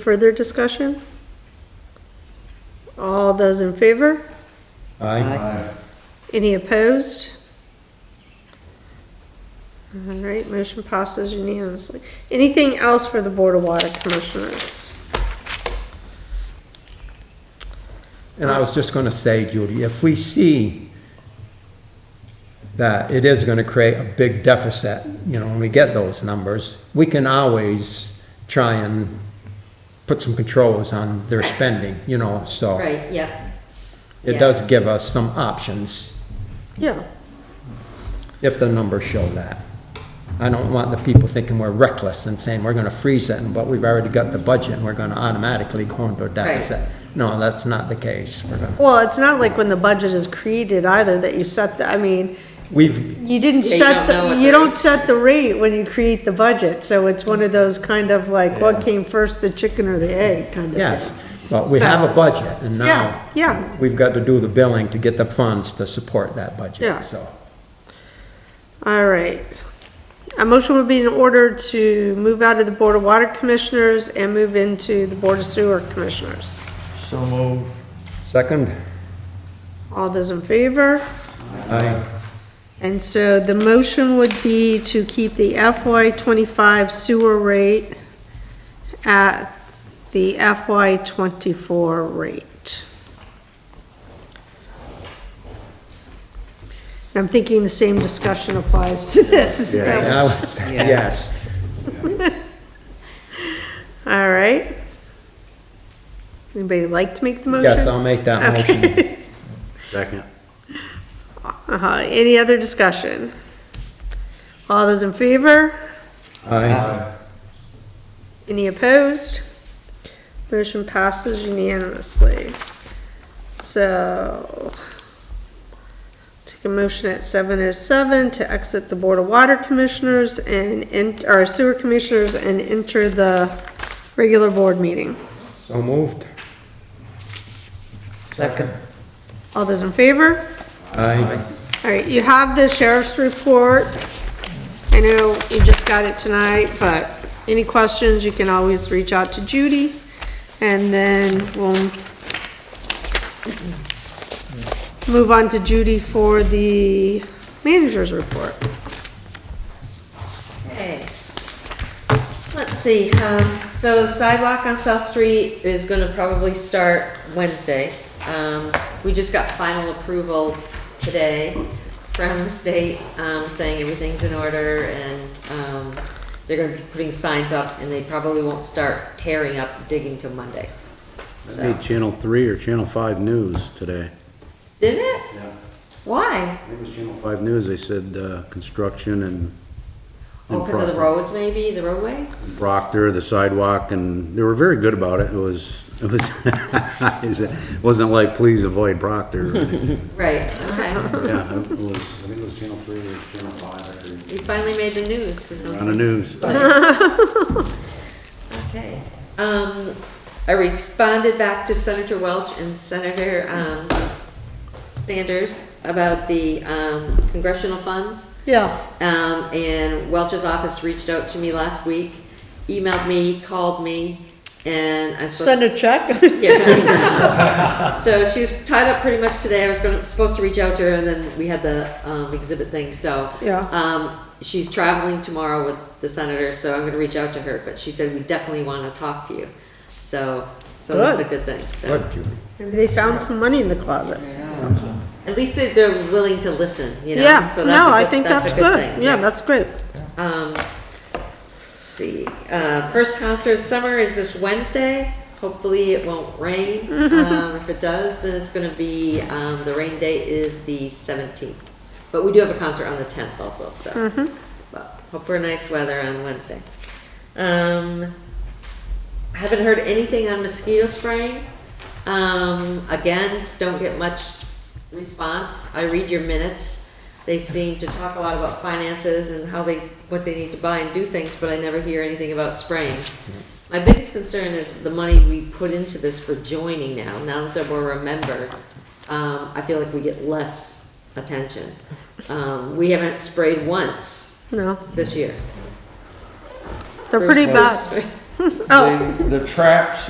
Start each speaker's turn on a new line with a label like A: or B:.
A: Further discussion? All those in favor?
B: Aye.
A: Any opposed? All right, motion passes unanimously. Anything else for the Board of Water Commissioners?
B: And I was just going to say, Judy, if we see that it is going to create a big deficit, you know, when we get those numbers, we can always try and put some controls on their spending, you know, so
C: Right, yeah.
B: it
C: yeah.
B: does give us some options
A: Yeah,
B: if the numbers show that. I don't want the people thinking we're reckless and saying we're going to freeze it, but we've already got the budget and we're going to automatically go into a deficit. No, that's not the case. We're gonna,
A: well, it's not like when the budget is created either that you set the, I mean,
B: we've,
A: you didn't
C: Yeah, you
A: set,
C: don't
A: the-
C: know what
A: you
C: the
A: don't
C: rate's
A: set the rate when you create the budget, so it's one of those kind of like, what came first, the chicken or the egg kind of thing.
B: Yes, but we have a budget, and
A: Yeah,
B: now
A: yeah.
B: we've got to do the billing to get the funds to support that
A: Yeah.
B: budget, so.
A: All right. A motion would be in order to move out of the Board of Water Commissioners and move into the Board of Sewer Commissioners.
D: So move.
B: Second?
A: All those in favor?
B: Aye.
A: And so the motion would be to keep the FY twenty-five sewer rate at the FY twenty-four rate. And I'm thinking the same discussion applies to this, is that what-
B: Now, Yes,
A: All right. Anybody like to make the motion?
B: yes, I'll make that motion.
A: Okay.
D: Second.
A: Uh-huh, any other discussion? All those in favor?
B: Aye.
A: Any opposed? Motion passes unanimously. So, take a motion at seven oh seven to exit the Board of Water Commissioners and, en- or Sewer Commissioners and enter the regular board meeting.
B: So moved.
D: Second.
A: All those in favor?
B: Aye.
A: All right, you have the sheriff's report. I know you just got it tonight, but any questions, you can always reach out to Judy, and then we'll move on to Judy for the manager's report.
C: Okay. Let's see, um, so sidewalk on South Street is gonna probably start Wednesday. Um, we just got final approval today from the state, um, saying everything's in order and, um, they're gonna be putting signs up and they probably won't start tearing up, digging till Monday.
E: I
C: So,
E: made Channel 3 or Channel 5 News today.
C: did it?
E: Yeah.
C: Why?
E: I think it was Channel 5 News, they said uh, construction and.
C: Oh,
E: and
C: because of the
E: Proctor-
C: roads maybe, the roadway?
E: Proctor, the sidewalk, and they were very good about it. It was, it was, it wasn't like, please avoid Proctor. or anything.
C: Right, okay.
E: Yeah, it was, I think it was Channel 3 or Channel 5.
C: We finally made the news for something.
E: On the news.
C: Okay. Um, I responded back to Senator Welch and Senator, um, Sanders about the, um, congressional funds.
A: Yeah.
C: Um, and Welch's office reached out to me last week, emailed me, called me, and I was supposed to.
A: Send a check?
C: Yeah. So she was tied up pretty much today. I was gonna, supposed to reach out to her and then we had the, um, exhibit thing, so.
A: Yeah.
C: Um, she's traveling tomorrow with the senator, so I'm gonna reach out to her, but she said, we definitely wanna talk to you. So, so that's a good thing, so.
B: Good, Judy.
A: They found some money in the closet.
C: At least they- they're willing to listen, you know?
A: Yeah,
C: so that's a
A: no, I
C: good-
A: think that's
C: a good
A: good.
C: thing,
A: Yeah, that's great.
C: Um, let's see, uh, first concert of summer is this Wednesday. Hopefully it won't rain. Um, if it does, then it's gonna be, um, the rain date is the seventeenth. But we do have a concert on the tenth also, so. But hope for nice weather on Wednesday. Um, haven't heard anything on mosquito spraying. Um, again, don't get much response. I read your minutes. They seem to talk a lot about finances and how they, what they need to buy and do things, but I never hear anything about spraying. My biggest concern is the money we put into this for joining now, now that we're a member, um, I feel like we get less attention. Um, we haven't sprayed once
A: No,
C: this year.
A: they're pretty
C: Bruce
A: bad.
C: Willis.
F: Oh.
E: The traps